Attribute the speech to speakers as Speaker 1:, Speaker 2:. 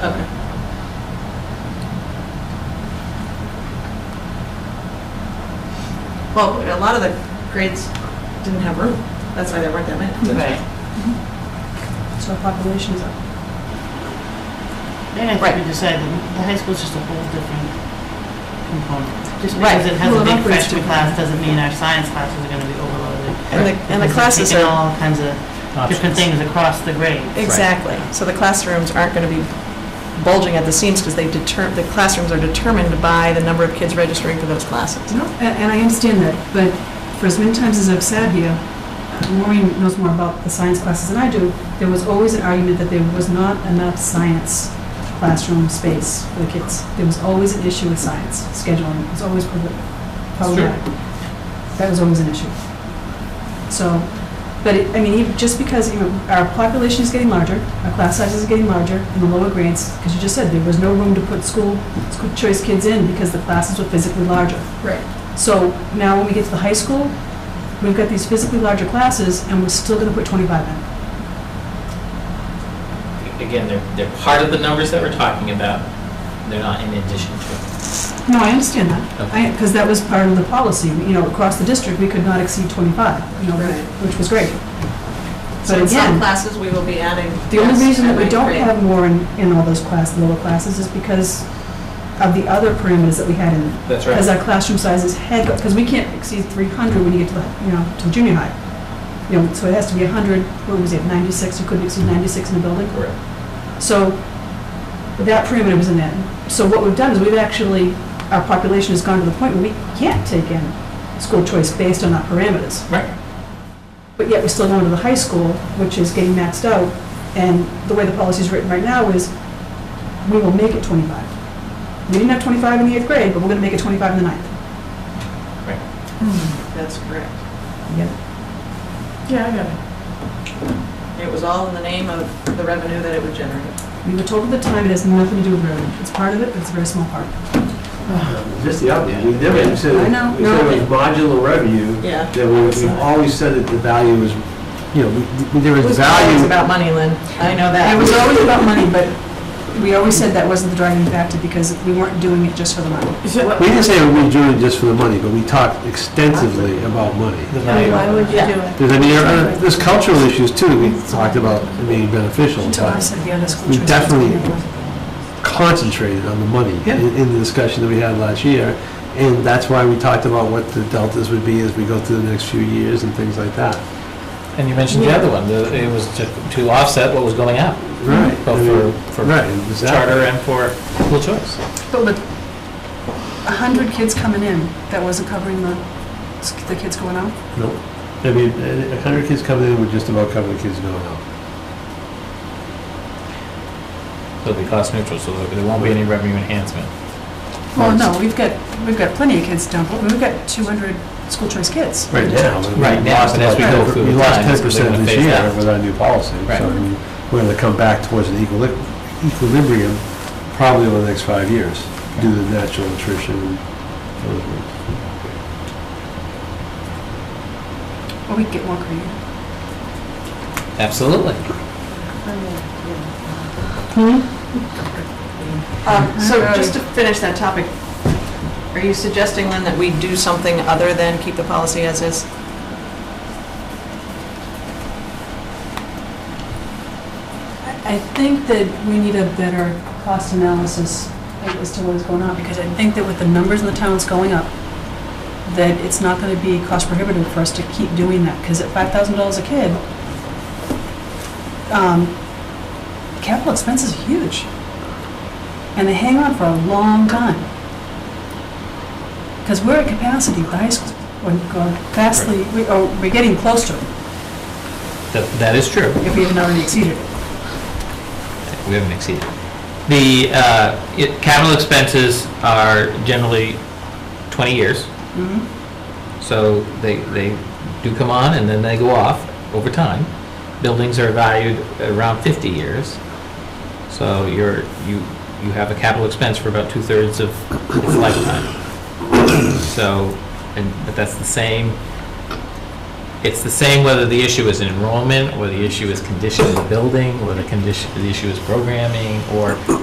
Speaker 1: Okay. Well, a lot of the grades didn't have room. That's why there weren't that many.
Speaker 2: Right.
Speaker 3: So population's up.
Speaker 2: Then I
Speaker 1: Right.
Speaker 2: think we decided the high school's just a whole different component. Just
Speaker 1: Right.
Speaker 2: because it has a
Speaker 3: Well,
Speaker 2: big
Speaker 3: upwards
Speaker 2: freshman
Speaker 3: different.
Speaker 2: class doesn't mean our science classes are gonna be overloaded.
Speaker 1: And the, and the
Speaker 2: Because it's
Speaker 1: classes
Speaker 2: taking
Speaker 1: are,
Speaker 2: all kinds of different things across the grades.
Speaker 1: exactly. So the classrooms aren't going to be bulging at the seams because they deter, the classrooms are determined by the number of kids registering for those classes.
Speaker 3: No, a- and I understand that, but for as many times as I've sat here, uh, Maureen knows more about the science classes than I do, there was always an argument that there was not enough science classroom space for the kids. There was always an issue with science scheduling, it was always prob- problematic. That was always an issue. So, but it, I mean, even- just because, you know, our population is getting larger, our class sizes are getting larger in the lower grades, because you just said there was no room to put school, school choice kids in because the classes were physically larger.
Speaker 1: Right.
Speaker 3: So now when we get to the high school, we've got these physically larger classes, and we're still gonna put 25 in.
Speaker 4: Again, they're, they're part of the numbers that we're talking about. They're not in addition to.
Speaker 3: No, I understand that. I, because that was part of the policy, you know, across the district, we could not exceed 25, you know,
Speaker 1: Right.
Speaker 3: which was great.
Speaker 1: So
Speaker 3: But
Speaker 1: in some
Speaker 3: again,
Speaker 1: classes, we will be adding.
Speaker 3: the
Speaker 1: yes,
Speaker 3: only reason
Speaker 1: at
Speaker 3: that we
Speaker 1: ninth
Speaker 3: don't
Speaker 1: grade.
Speaker 3: have more in, in all those class, lower classes, is because of the other parameters that we had in there.
Speaker 4: That's
Speaker 3: Because our classroom sizes had, because we can't exceed 300 when you get to, the you know, to junior high. You know, so it has to be 100, what was it, 96, you couldn't exceed 96 in a building?
Speaker 4: Correct.
Speaker 3: So that perimeter was in that. So what we've done is we've actually, our population has gone to the point where we can't take in school choice based on our parameters.
Speaker 4: Right.
Speaker 3: But yet we're still going to the high school, which is getting maxed out. And the way the policy is written right now is we will make it 25. We didn't have 25 in the eighth grade, but we're going to make it 25 in the ninth.
Speaker 1: That's correct.
Speaker 3: Yeah.
Speaker 1: Yeah, I got it. It was all in the name of the revenue that it would generate.
Speaker 3: We were told at the time it has nothing to do with revenue. It's part of it, but it's a very small part.
Speaker 5: Just the opposite, we've never even said,
Speaker 3: I know.
Speaker 5: we said it was modular revenue,
Speaker 1: Yeah.
Speaker 5: that we- we've always said that the value is, you know, we- there is value.
Speaker 1: about money, Lynn. I know
Speaker 3: And it was always about money, but we always said that wasn't the driving factor because we weren't doing it just for the money.
Speaker 5: We didn't say we were doing it just for the money, but we talked extensively about money.
Speaker 2: Why would
Speaker 1: you
Speaker 2: do it?
Speaker 5: There's, I mean, there are- there's cultural issues too, that we talked about being beneficial, but
Speaker 3: said the other school
Speaker 5: We choice was definitely- concentrated on the money in in the discussion that we had last year, and that's why we talked about what the deltas would be as we go through the next few years and things like that.
Speaker 6: And you mentioned the other one, the- it was to to offset what was going out,
Speaker 5: Right.
Speaker 6: both for- for
Speaker 5: Right, exactly.
Speaker 6: charter and for school choice.
Speaker 3: But a hundred kids coming in, that wasn't covering the, the kids going out?
Speaker 5: No, I mean, a a hundred kids coming in would just about cover the kids going out.
Speaker 6: So it'll be cost neutral, so there won't be any revenue enhancement.
Speaker 3: Well, no, we've got, we've got plenty of kids down, but we've got two hundred school choice kids.
Speaker 5: Right now. we
Speaker 6: Right now,
Speaker 5: lost
Speaker 6: but as we go
Speaker 5: about-
Speaker 6: through
Speaker 5: We
Speaker 6: the
Speaker 5: lost
Speaker 6: times,
Speaker 5: ten
Speaker 6: they're
Speaker 5: percent
Speaker 6: gonna
Speaker 5: this
Speaker 6: phase
Speaker 5: year
Speaker 6: out.
Speaker 5: with our new policy.
Speaker 6: Right.
Speaker 5: So I mean, we're gonna come back towards an equili- equilibrium probably over the next five years due to the natural attrition. and those things.
Speaker 3: Or we could get more creative.
Speaker 6: Absolutely.
Speaker 1: Um, So just to finish that topic, are you suggesting, Lynn, that we do something other than keep the policy as is?
Speaker 3: I think that we need a better cost analysis as to what is going on, because I think that with the numbers in the town that's going up, that it's not gonna be cost prohibitive for us to keep doing that, because at five thousand dollars a kid, um, capital expense is huge. And they hang on for a long time. Because we're at capacity, the high school, we're vastly, we- or we're getting close to it,
Speaker 6: That That is true.
Speaker 3: if we haven't already exceeded it.
Speaker 6: We haven't exceeded. The uh, it- capital expenses are generally 20 years,
Speaker 3: Mhm.
Speaker 6: so they, they do come on and then they go off over time. Buildings are valued around 50 years, so you're, you, you have a capital expense for about two-thirds of its lifetime. So, and, but that's the same, it's the same whether the issue is enrollment, or the issue is condition of the building, or the condition, the issue is programming, or